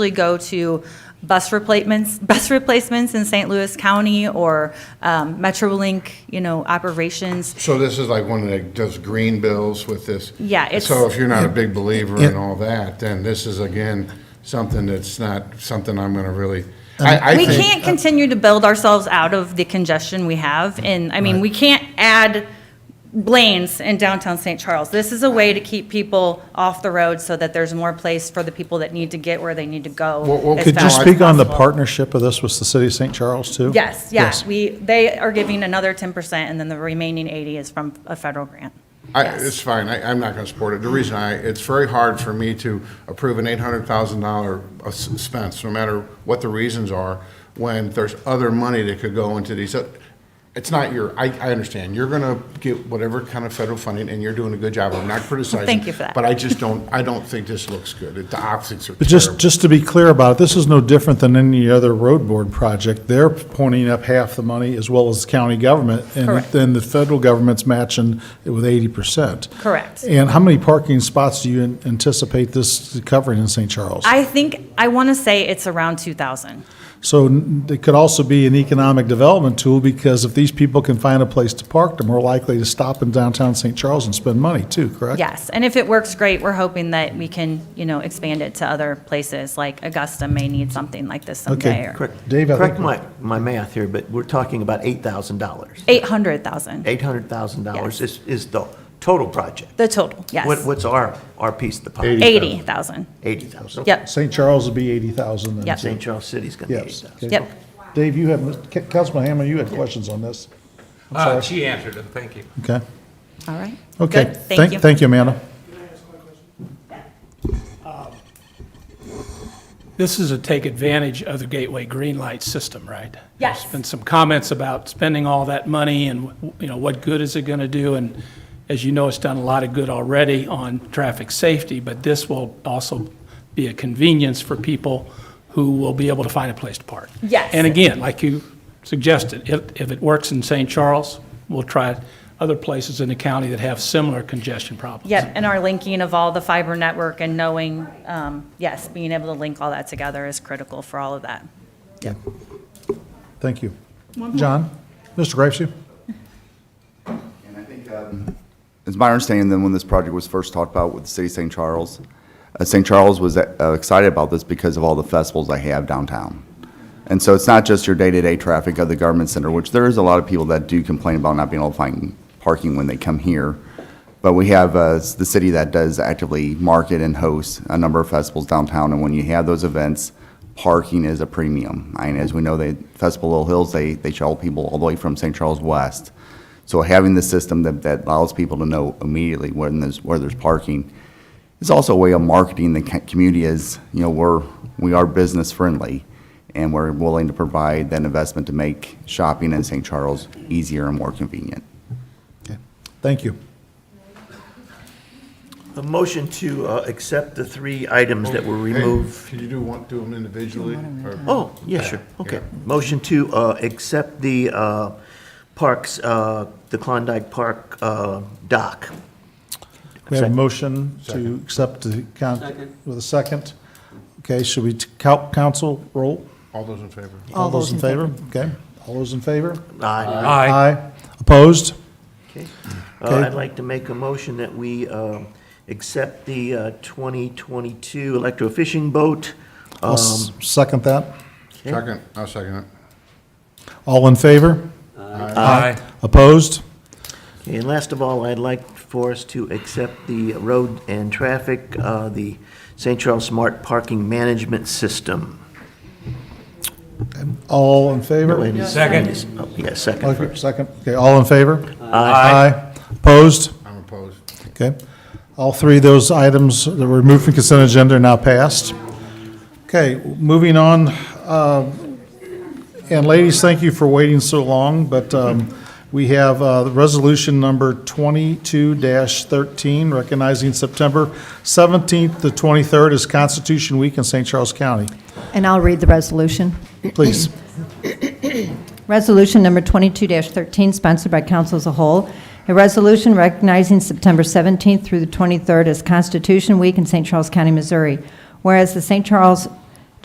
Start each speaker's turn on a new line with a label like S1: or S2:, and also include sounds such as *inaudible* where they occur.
S1: usually go to bus replacements, *laughs* bus replacements in St. Louis County or um, MetroLink, you know, operations.
S2: So this is like one that does green bills with this?
S1: Yeah, it's-
S2: So if you're not a big believer in
S3: Yeah.
S2: all that, then this is again, something that's not, something I'm gonna really, I, I
S1: We
S2: think.
S1: can't continue to build ourselves out of the congestion we have, and, I mean, we can't add lanes in downtown St. Charles. This is a way to keep people off the road so that there's more place for the people that need to get where they need to
S2: Well, well,
S1: go. as
S2: could you
S3: Could you
S1: fast as
S3: speak on the
S1: possible.
S3: partnership of this with the city of St. Charles, too?
S1: Yes, yes, we, they are giving another ten percent, and then the remaining eighty is from a federal grant.
S2: I,
S1: Yes.
S2: it's fine, I, I'm not gonna support it. The reason I, it's very hard for me to approve an eight hundred thousand dollar uh, expense, no matter what the reasons are, when there's other money that could go into these. Uh, It's not your, I, I understand, you're gonna get whatever kind of federal funding, and you're doing a good job, I'm not criticizing.
S1: Thank you for that.
S2: But I just don't, I don't think this looks good, the optics are terrible.
S3: But just, just to be clear about it, this is no different than any other road board project. They're pointing up half the money as well as county government. And
S1: Correct.
S3: then the federal government's matching it with eighty percent.
S1: Correct.
S3: And how many parking spots do you an- anticipate this covering in St. Charles?
S1: I think, I want to say it's around two thousand.
S3: So n- it could also be an economic development tool because if these people can find a place to park, they're more likely to stop in downtown St. Charles and spend money too, correct?
S1: Yes, and if it works great, we're hoping that we can, you know, expand it to other places, like Augusta may need something like this someday.
S3: Okay, correct. Dave, I
S4: Correct
S3: think
S4: my, my math here, but we're talking about $8,000.
S1: Eight hundred thousand, Yes.
S4: $800,000 is, is the total project.
S1: the total,
S4: What,
S1: yes.
S4: what's our, our piece of the pie?
S1: Eighty thousand,
S4: 80,000.
S1: yep,
S3: St. Charles would be 80,000. and
S1: Yep.
S4: St. Charles City's going to be
S3: Yes.
S4: 8,000.
S3: okay.
S1: yep.
S3: Dave, you have, Ca- Councilman Hammond, you had questions on this? I'm
S5: Uh,
S3: sorry.
S5: She answered it, thank you.
S3: Okay.
S1: All right.
S3: Okay.
S1: Good, Thank you.
S3: Thank you, Amanda.
S6: This is to take advantage of the Gateway Green Light system, right?
S1: Yes.
S6: There's been some comments about spending all that money and, you know, what good is it going to do? And as you know, it's done a lot of good already on traffic safety, but this will also be a convenience for people who will be able to find a place to park.
S1: Yes.
S6: And again, like you suggested, if, if it works in St. Charles, we'll try other places in the county that have similar congestion problems.
S1: Yep, and our linking of all the fiber network and knowing, um, yes, being able to link all that together is critical for all of that.
S3: Thank you. John? Mr. Graves?
S7: And I think, um, it's my understanding that when this project was first talked about with the city of St. Charles, uh, St. Charles was uh, excited about this because of all the festivals they have downtown. And so it's not just your day-to-day traffic of the government center, which there is a lot of people that do complain about not being able to find parking when they come here. But we have uh, the city that does actively market and host a number of festivals downtown, and when you have those events, parking is a premium. And as we know, they, Festival Little Hills, they, they shuttle people all the way from St. Charles West. So having the system that, that allows people to know immediately when there's, where there's parking, it's also a way of marketing the co- community as, you know, we're, we are business friendly and we're willing to provide that investment to make shopping in St. Charles easier and more convenient.
S3: Thank you.
S4: A motion to uh, accept the three items that were
S2: Hey,
S4: removed.
S2: Can you do one, do them individually? or-
S4: Oh, yeah, sure, okay. Motion to uh, accept the uh, parks, uh, the Klondike Park uh, dock.
S3: We have a
S4: Second.
S3: motion to accept the count with a second. Okay, should we, t- cou- council, roll?
S2: All those in favor?
S3: All those in favor? Okay. All those in favor?
S4: Aye.
S3: Aye. Opposed?
S4: Okay.
S3: Okay.
S4: Uh, I'd like to make a motion that we um, accept the uh, 2022 electrofishing boat. Uh,
S3: I'll s- second that.
S4: Okay.
S2: Second, I'll second it.
S3: All in favor?
S5: Aye.
S3: Opposed?
S4: Okay, And last of all, I'd like for us to accept the road and traffic, uh, the St. Charles Smart Parking Management System.
S3: All in favor?
S4: Wait a minute.
S5: Second.
S4: Oh, Yeah, second
S3: Okay,
S4: first.
S3: Second, okay, all in favor?
S5: Aye.
S3: Opposed?
S2: I'm opposed.
S3: Okay. All three of those items that were removed from consent agenda are now passed. Okay, moving on, um, and ladies, thank you for waiting so long, but um, we have uh, the resolution number 22-13, recognizing September 17th to 23rd as Constitution Week in St. Charles County.
S8: And I'll read the resolution.
S3: Please.
S8: Resolution number 22-13, sponsored by council as a whole, a resolution recognizing September 17th through the 23rd as Constitution Week in St. Charles County, Missouri. Whereas the St. Charles